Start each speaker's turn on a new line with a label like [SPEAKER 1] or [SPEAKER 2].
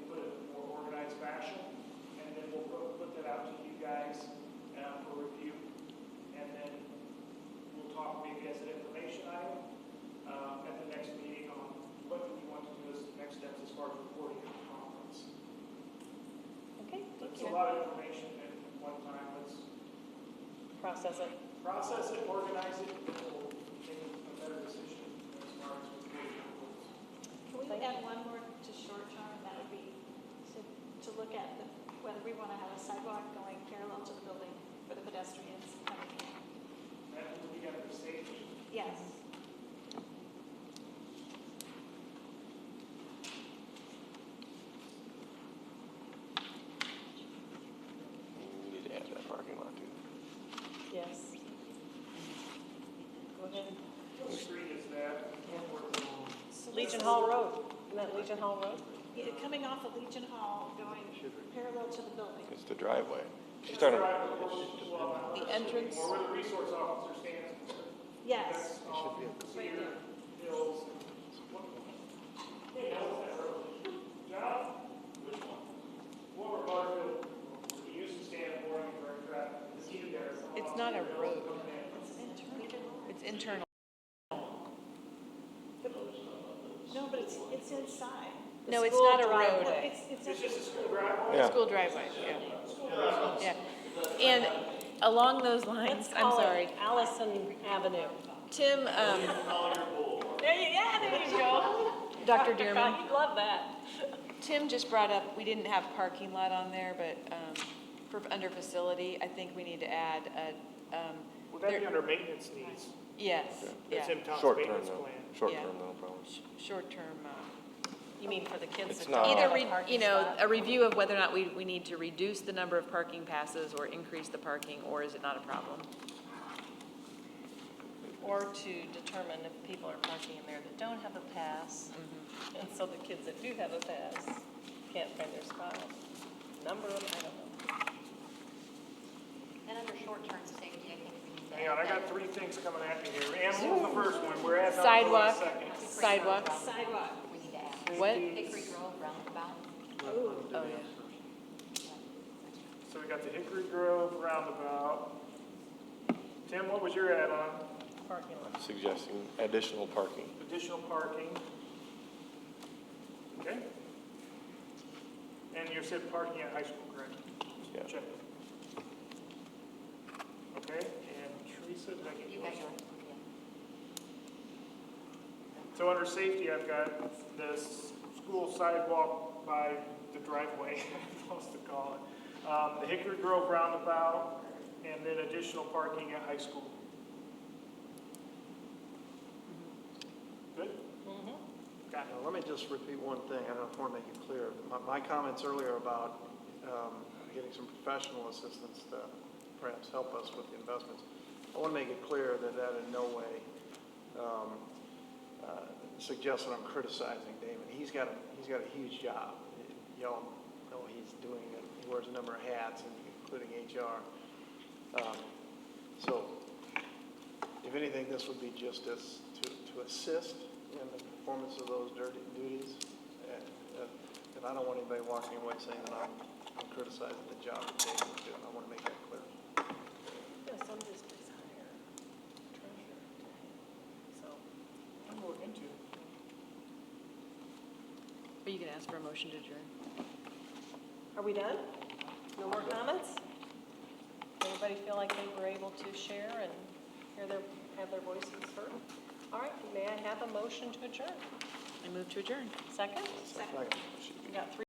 [SPEAKER 1] uh, uh,
[SPEAKER 2] process it?
[SPEAKER 1] Process it, organize it, and we'll make a better decision as far as what's going on.
[SPEAKER 3] Can we add one more to short term, that would be to, to look at the- whether we want to have a sidewalk going parallel to the building for the pedestrians coming in.
[SPEAKER 1] That will be at the stage.
[SPEAKER 3] Yes.
[SPEAKER 4] We need to add that parking lot too.
[SPEAKER 2] Yes. Go ahead.
[SPEAKER 1] What street is that? What we're doing.
[SPEAKER 2] Legion Hall Road, isn't that Legion Hall Road?
[SPEAKER 3] Yeah, Coming off of Legion Hall, going parallel to the building.
[SPEAKER 4] It's the driveway. She's
[SPEAKER 1] Just
[SPEAKER 4] talking,
[SPEAKER 1] drive it, we'll- well, I'm not
[SPEAKER 2] The
[SPEAKER 1] sure.
[SPEAKER 2] entrance.
[SPEAKER 1] Or where the resource officer stands.
[SPEAKER 3] Yes.
[SPEAKER 1] Cedar Hills. What- Hey, that was that road. John? Which one? Former Butterfield, we used to stand at Boring for a traffic. It's either there. or
[SPEAKER 5] It's not a
[SPEAKER 1] Cedar Hills
[SPEAKER 5] road.
[SPEAKER 1] coming in.
[SPEAKER 5] It's internal.
[SPEAKER 3] No, but it's, it's inside.
[SPEAKER 5] No,
[SPEAKER 2] The
[SPEAKER 5] it's not a
[SPEAKER 2] school
[SPEAKER 5] road.
[SPEAKER 2] driveway.
[SPEAKER 3] It's, it's.
[SPEAKER 1] It's just a school driveway.
[SPEAKER 4] yeah.
[SPEAKER 5] School driveway, yeah. Yeah. And along those
[SPEAKER 2] Let's
[SPEAKER 5] lines, I'm
[SPEAKER 2] call
[SPEAKER 5] sorry,
[SPEAKER 2] it Allison Avenue.
[SPEAKER 5] Tim, um,
[SPEAKER 2] There you, yeah, there you go.
[SPEAKER 5] Dr.
[SPEAKER 2] Cotton,
[SPEAKER 5] Dearman,
[SPEAKER 2] You'd love that.
[SPEAKER 5] Tim just brought up, we didn't have parking lot on there, but, um, for, under facility, I think we need to add a, um,
[SPEAKER 1] Would that be
[SPEAKER 5] there-
[SPEAKER 1] under maintenance needs?
[SPEAKER 5] yes,
[SPEAKER 1] That's
[SPEAKER 5] yeah,
[SPEAKER 1] in Tom's
[SPEAKER 4] Short term
[SPEAKER 1] maintenance
[SPEAKER 4] though,
[SPEAKER 1] plan.
[SPEAKER 4] short
[SPEAKER 5] Yeah.
[SPEAKER 4] term though, probably.
[SPEAKER 5] short-term, uh,
[SPEAKER 2] You mean for the kids
[SPEAKER 4] It's
[SPEAKER 2] that don't
[SPEAKER 4] not-
[SPEAKER 5] either,
[SPEAKER 2] have a
[SPEAKER 5] re-
[SPEAKER 2] parking
[SPEAKER 5] you know,
[SPEAKER 2] spot?
[SPEAKER 5] a review of whether or not we, we need to reduce the number of parking passes or increase the parking, or is it not a problem?
[SPEAKER 2] Or to determine if people are parking in there that don't have a pass. And so the kids that do have a pass can't find their spot. Number them, I don't know.
[SPEAKER 6] And under short-term safety, I think we need to.
[SPEAKER 1] Hang on, I got three things coming at me here. Animals the first one, we're at.
[SPEAKER 5] Sidewalk,
[SPEAKER 1] Second.
[SPEAKER 5] sidewalks,
[SPEAKER 3] Sidewalk.
[SPEAKER 6] We need to add.
[SPEAKER 5] what?
[SPEAKER 6] Hickory Grove roundabout.
[SPEAKER 5] Oh, yeah.
[SPEAKER 1] So we got the Hickory Grove roundabout. Tim, what was your add-on?
[SPEAKER 2] Parking lot.
[SPEAKER 4] I'm suggesting additional parking.
[SPEAKER 1] Additional parking. Okay. And you said parking at high school, correct?
[SPEAKER 4] Yeah.
[SPEAKER 1] Check. Okay, and Teresa, did I get
[SPEAKER 6] You
[SPEAKER 1] yours?
[SPEAKER 6] got yours.
[SPEAKER 1] So under safety, I've got the s- school sidewalk by the driveway, I'm supposed to call it. Um, the Hickory Grove roundabout, and then additional parking at high school. Good? Got
[SPEAKER 7] Now, let me just repeat one thing, I don't want to make it clear. My, my comments earlier about um, getting some professional assistance to perhaps help us with the investments, I want to make it clear that that in no way um, uh, suggests that I'm criticizing Damon. He's got, a- he's got a huge job. Y'all know he's doing, it. he wears a number of hats, including HR. Um, So if anything, this would be just as, to, to assist in the performance of those dirty duties. And, uh, And I don't want anybody walking away saying that I'm I'm criticizing the job that David is doing. I want to make that clear.
[SPEAKER 2] Yeah, some districts hire treasurer. So,
[SPEAKER 1] I'm going into.
[SPEAKER 5] Are you gonna ask for a motion to adjourn?
[SPEAKER 2] are we done? No more comments? Everybody feel like they were able to share and hear their, have their voices heard? All right, may I have a motion to adjourn?
[SPEAKER 5] I move to adjourn.
[SPEAKER 2] Second?
[SPEAKER 4] Second.
[SPEAKER 2] We got three